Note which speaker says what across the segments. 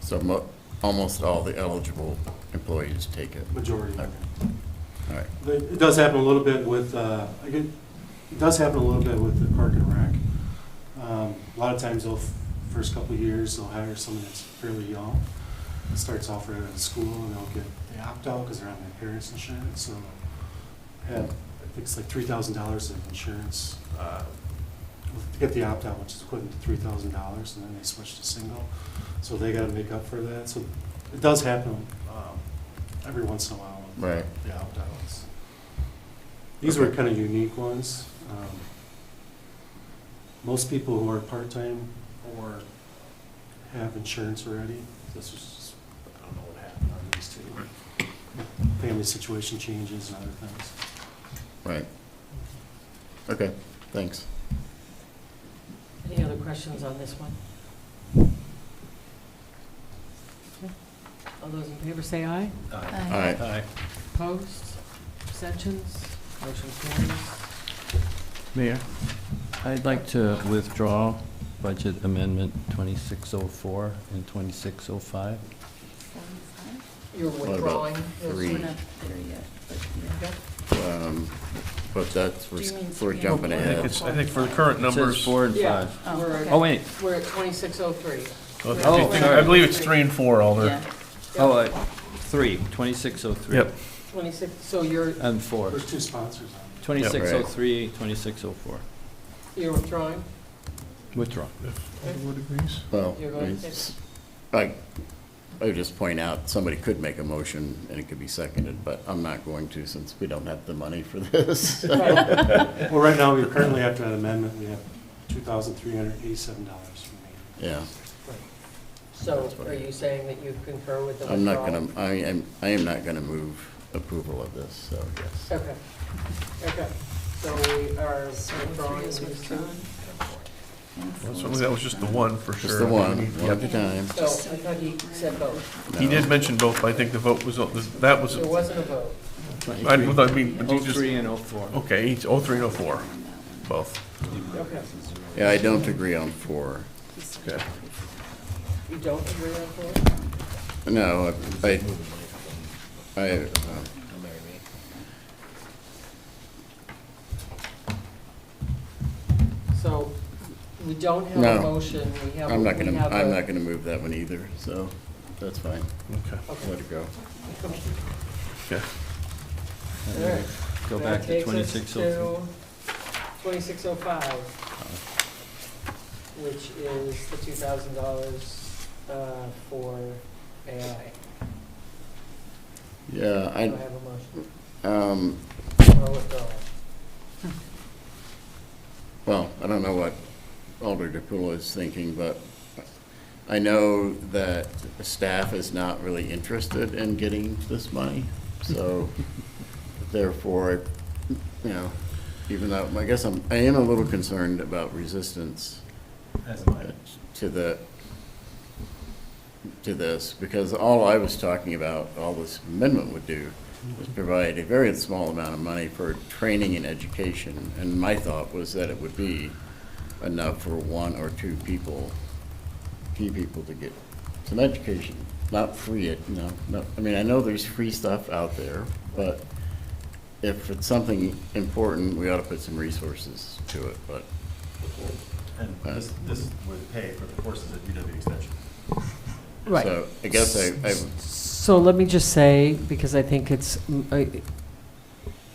Speaker 1: So mo- almost all the eligible employees take it.
Speaker 2: majority.
Speaker 1: Okay. All right,
Speaker 2: But It does happen a little bit with, uh, I get- it does happen a little bit with the Park and Rec. Um, A lot of times they'll, first couple of years, they'll hire someone that's fairly young. It starts off right out of school and they'll get, they opt out because they're on their parents' insurance, so have, I think it's like three thousand dollars of insurance. uh, To get the opt-out, which is equivalent to three thousand dollars, and then they switch to single. So they gotta make up for that, so it does happen um, every once in a while with
Speaker 1: right.
Speaker 2: the opt-outs. These were kind of unique ones. Um, Most people who are part-time or have insurance already, this was, just- I don't know what happened on these two. Family situation changes and other things.
Speaker 1: Right. Okay, thanks.
Speaker 3: Any other questions on this one? All those in favor say aye.
Speaker 1: All right,
Speaker 3: Opposed? Abstentions? Motion carries.
Speaker 4: Mayor, I'd like to withdraw Budget Amendment 2604 and 2605.
Speaker 3: You're
Speaker 1: about
Speaker 3: withdrawing. those
Speaker 1: three?
Speaker 5: We're
Speaker 3: two?
Speaker 5: not there yet, but yeah.
Speaker 1: um, but that's,
Speaker 5: Do you
Speaker 1: we're
Speaker 5: mean-
Speaker 1: we're
Speaker 5: yeah.
Speaker 1: jumping
Speaker 6: I think
Speaker 1: ahead.
Speaker 6: it's, I think for the current
Speaker 4: It says
Speaker 6: numbers,
Speaker 4: four and
Speaker 3: Yeah,
Speaker 4: five.
Speaker 5: Oh,
Speaker 3: we're,
Speaker 4: Oh,
Speaker 3: at-
Speaker 4: wait,
Speaker 3: we're at twenty-six oh three.
Speaker 4: Oh,
Speaker 6: I think-
Speaker 4: sorry.
Speaker 6: I believe it's three and four, Alder.
Speaker 5: Yeah.
Speaker 4: oh, uh, three, 2603.
Speaker 6: Yep.
Speaker 3: Twenty-six, so you're,
Speaker 4: And four,
Speaker 2: There's two sponsors on
Speaker 4: 2603, 2604.
Speaker 3: you're withdrawing?
Speaker 4: Withdraw.
Speaker 6: If everyone agrees.
Speaker 1: Well,
Speaker 3: You're going
Speaker 1: I s- I, I would just point out, somebody could make a motion and it could be seconded, but I'm not going to since we don't have the money for this.
Speaker 3: Right.
Speaker 2: it. Well, right now, we currently after that amendment, we have two thousand three hundred eighty-seven dollars remaining.
Speaker 1: Yeah,
Speaker 3: So are you saying that you concur with the
Speaker 1: I'm
Speaker 3: withdrawal?
Speaker 1: not gonna, I am, I am not gonna move approval of this, so yes.
Speaker 3: Okay, okay. So we are
Speaker 5: So three
Speaker 3: withdrawing
Speaker 5: is
Speaker 3: these two.
Speaker 5: withdrawn. And four
Speaker 6: Certainly,
Speaker 5: is
Speaker 6: that was just the
Speaker 5: withdrawn.
Speaker 6: one, for sure.
Speaker 1: Just the one, one at a time.
Speaker 3: So I thought he said both.
Speaker 6: He
Speaker 1: No.
Speaker 6: did mention both, but I think the vote was, that was,
Speaker 3: There wasn't a vote.
Speaker 6: I I mean, but you just,
Speaker 4: 03 Oh, and 04.
Speaker 6: okay, each, oh, three and oh four, both.
Speaker 3: Okay.
Speaker 1: Yeah, I don't agree on four.
Speaker 6: Okay.
Speaker 3: You don't agree on four?
Speaker 1: No, I, I, I, uh,
Speaker 3: So we don't have a
Speaker 1: No.
Speaker 3: motion, we have.
Speaker 1: I'm not gonna,
Speaker 3: we have
Speaker 1: I'm
Speaker 3: a-
Speaker 1: not gonna move that one either, so that's fine.
Speaker 6: Okay.
Speaker 1: Let
Speaker 3: Okay.
Speaker 1: it go.
Speaker 6: Okay.
Speaker 3: All right.
Speaker 4: Go
Speaker 3: That
Speaker 4: back to
Speaker 3: takes us
Speaker 4: 2603.
Speaker 3: to 2605, which is the $2,000 uh, for AI.
Speaker 1: Yeah,
Speaker 3: Do I
Speaker 1: I,
Speaker 3: have a motion
Speaker 1: um,
Speaker 3: for withdrawal?
Speaker 1: well, I don't know what Alder DePula is thinking, but I know that staff is not really interested in getting this money, so therefore, you know, even though, I guess I'm, I am a little concerned about resistance to the, to this, because all I was talking about, all this amendment would do was
Speaker 7: Mhm.
Speaker 1: provide a very small amount of money for training and education, and my thought was that it would be enough for one or two people, few people to get some education, not free it, no, no, I mean, I know there's free stuff out there, but if it's something important, we ought to put some resources to it, but,
Speaker 7: And this, this would pay for the courses at UW Extension.
Speaker 1: so, I guess I, I
Speaker 3: So let me just say, because I think it's, mm, I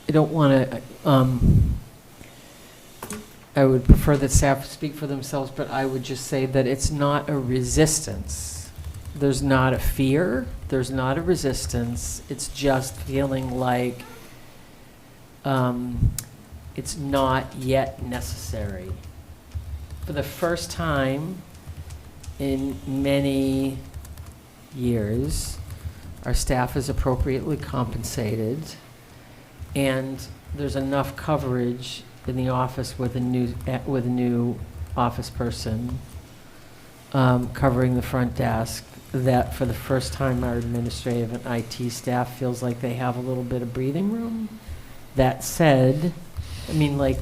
Speaker 3: I don't want to, I would prefer that staff speak for themselves, but I would just say that it's not a resistance. There's not a fear, there's not a resistance, it's just feeling like um, it's not yet necessary. For the first time in many years. Our staff is appropriately compensated, and there's enough coverage in the office with a new, eh, with a new office person um, covering the front desk, that for the first time, our administrative and IT staff feels like they have a little bit of breathing room. That said, I mean, like,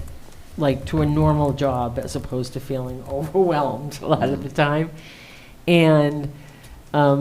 Speaker 3: like to a normal job as opposed to feeling overwhelmed a lot of the time. And um,